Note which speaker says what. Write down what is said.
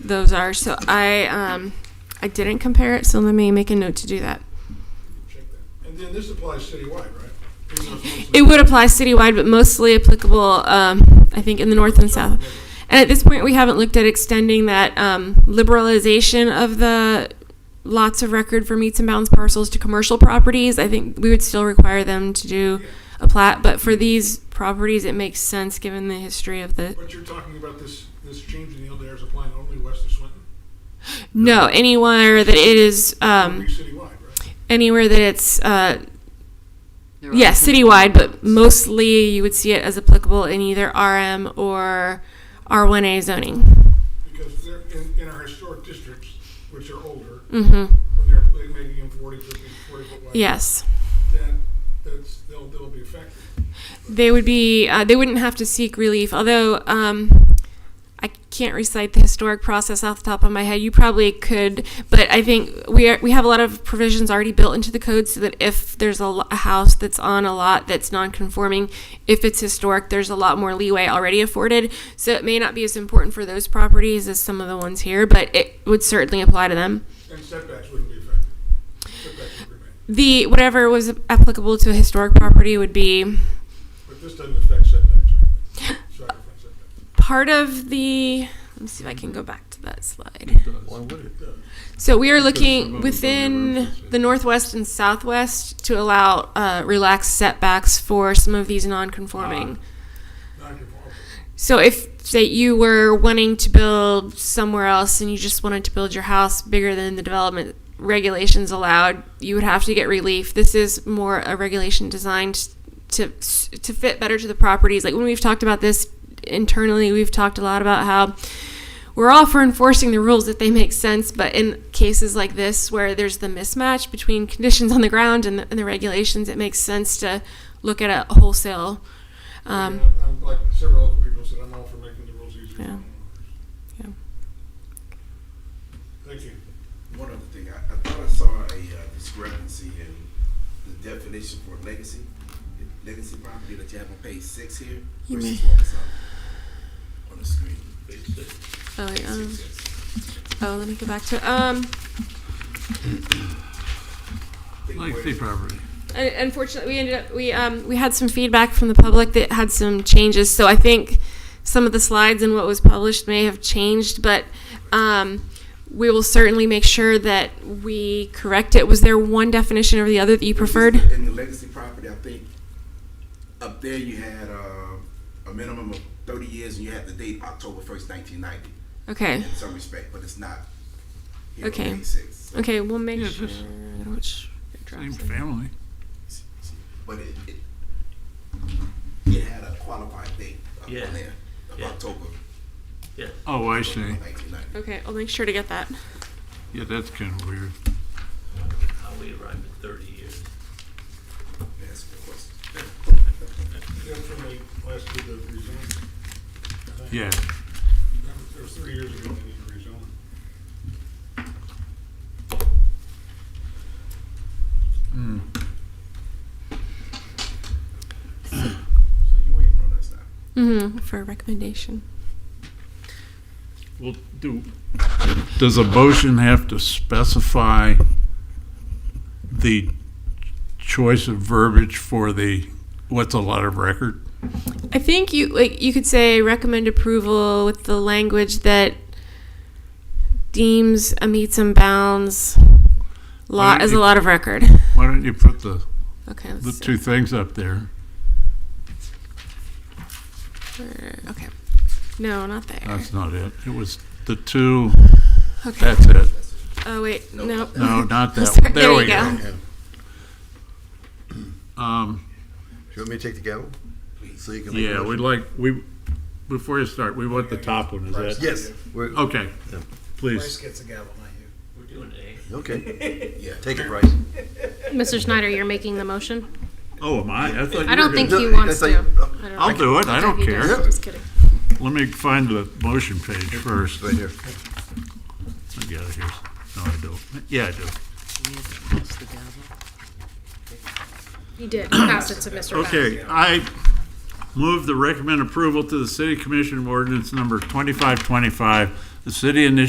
Speaker 1: those are. So I um, I didn't compare it. So let me make a note to do that.
Speaker 2: Check that. And then this applies citywide, right? These are supposed to-
Speaker 1: It would apply citywide, but mostly applicable, um, I think, in the north and south. And at this point, we haven't looked at extending that um, liberalization of the lots of record for meets and bounds parcels to commercial properties. I think we would still require them to do a plat, but for these properties, it makes sense given the history of the.
Speaker 2: But you're talking about this, this change in the LDR is applying only west of Swinton?
Speaker 1: No, anywhere that it is,
Speaker 2: It'll be
Speaker 1: um,
Speaker 2: citywide, right?
Speaker 1: anywhere that it's, uh,
Speaker 3: There
Speaker 1: yeah,
Speaker 3: are some-
Speaker 1: citywide, but mostly you would see it as applicable in either RM or R1A zoning.
Speaker 2: Because they're, in, in our historic districts, which are older,
Speaker 1: Mm-hmm.
Speaker 2: when they're pla- making them forty, fifty, forty foot wide.
Speaker 1: Yes,
Speaker 2: Then, that's, they'll, they'll be affected.
Speaker 1: they would be. Uh, they wouldn't have to seek relief. Although um, I can't recite the historic process off the top of my head. You probably could, but I think we are, we have a lot of provisions already built into the code so that if there's a, lo- a house that's on a lot that's non-conforming, if it's historic, there's a lot more leeway already afforded. So it may not be as important for those properties as some of the ones here, but it would certainly apply to them.
Speaker 2: And setbacks wouldn't be affected. Setbacks would remain.
Speaker 1: The whatever was applicable to a historic property would be
Speaker 2: But this doesn't affect setbacks or anything. Side effect setbacks.
Speaker 1: part of the let me see if I can go back to that slide.
Speaker 4: Why would it?
Speaker 2: It does.
Speaker 1: So we are
Speaker 4: Because some of
Speaker 1: looking
Speaker 4: them
Speaker 1: within
Speaker 4: don't have
Speaker 1: the northwest and southwest to allow uh, relaxed setbacks for some of these non-conforming.
Speaker 2: Non-conforming.
Speaker 1: So if say you were wanting to build somewhere else and you just wanted to build your house bigger than the development regulations allowed, you would have to get relief. This is more a regulation designed to to fit better to the properties. Like when we've talked about this internally, we've talked a lot about how we're all for enforcing the rules if they make sense, but in cases like this where there's the mismatch between conditions on the ground and the, and the regulations, it makes sense to look at a wholesale. Um,
Speaker 2: Yeah, I'm like several other people said, I'm all for making the rules easier. for
Speaker 1: Yeah.
Speaker 2: homeowners.
Speaker 1: Yeah.
Speaker 2: Thank you.
Speaker 5: One other thing, I, I thought I saw a uh, discrepancy in the definition for legacy, legacy property that you have on page six here
Speaker 1: You
Speaker 5: versus
Speaker 1: may-
Speaker 5: what was on, on the screen.
Speaker 1: oh, wait, um, Oh, let me go back to it. Um,
Speaker 5: Think where-
Speaker 4: Legacy property.
Speaker 1: un- unfortunately, we ended up we um, we had some feedback from the public that had some changes. So I think some of the slides and what was published may have changed, but um, we will certainly make sure that we correct it. Was there one definition over the other that you
Speaker 5: it was
Speaker 1: preferred?
Speaker 5: just In the legacy property, I think, up there you had, uh, a minimum of thirty years and you had the date October first nineteen ninety
Speaker 1: Okay.
Speaker 5: in some respect, but it's not here on
Speaker 1: Okay.
Speaker 5: page six.
Speaker 1: Okay, we'll make
Speaker 4: Yeah,
Speaker 1: sure.
Speaker 4: just-
Speaker 1: I don't know which
Speaker 4: Same family.
Speaker 5: But it, it, it had a qualified date up on
Speaker 6: Yeah.
Speaker 5: there of
Speaker 6: Yeah.
Speaker 5: October
Speaker 4: Oh, I see.
Speaker 5: nineteen ninety.
Speaker 1: Okay, I'll make sure to get that.
Speaker 4: Yeah, that's kind of weird.
Speaker 6: How we arrived at thirty years.
Speaker 5: That's a good question.
Speaker 2: That's when they last did the rezoning. I think.
Speaker 4: Yeah.
Speaker 2: That was- That was three years ago, they did the rezoning.
Speaker 4: Hmm.
Speaker 5: So you waiting on us now?
Speaker 1: Mm-hmm, for a recommendation.
Speaker 4: Well, do. Does a motion have to specify the choice of verbiage for the, what's a lot of record?
Speaker 1: I think you like you could say recommend approval with the language that deems a meets and bounds lot as a lot of record.
Speaker 4: Why don't you put the,
Speaker 1: Okay.
Speaker 4: the
Speaker 1: Let's
Speaker 4: two things up there?
Speaker 1: see. Okay. No, not there.
Speaker 4: That's not it. It was the two,
Speaker 1: Okay.
Speaker 4: that's it.
Speaker 1: Oh wait, no.
Speaker 4: No, not that
Speaker 1: Sorry,
Speaker 4: one. There we
Speaker 1: go.
Speaker 4: go. Um,
Speaker 7: Do you want me to take the gavel? So you can make a
Speaker 4: Yeah, we'd
Speaker 7: motion?
Speaker 4: like, we, before you start, we want the top one, is that?
Speaker 7: Yes, we're,
Speaker 4: Okay, please.
Speaker 8: gets a gavel, not you.
Speaker 6: We're doing A.
Speaker 7: okay,
Speaker 5: Yeah.
Speaker 7: take it, Bryce.
Speaker 9: Mr. Schneider, you're making the motion?
Speaker 4: Oh, am I? I thought you
Speaker 9: I don't
Speaker 4: were
Speaker 9: think
Speaker 4: gonna-
Speaker 9: he wants
Speaker 7: I
Speaker 9: to.
Speaker 7: thought you-
Speaker 4: I'll do it, I don't care.
Speaker 9: Just kidding.
Speaker 4: Let me find the motion page first.
Speaker 7: Right here.
Speaker 4: I got it here. No, I don't. Yeah, I do.
Speaker 9: He did pass it to Mr. Bass.
Speaker 4: Okay, I move the recommend approval to the city commission of ordinance number twenty-five twenty-five, the city initiative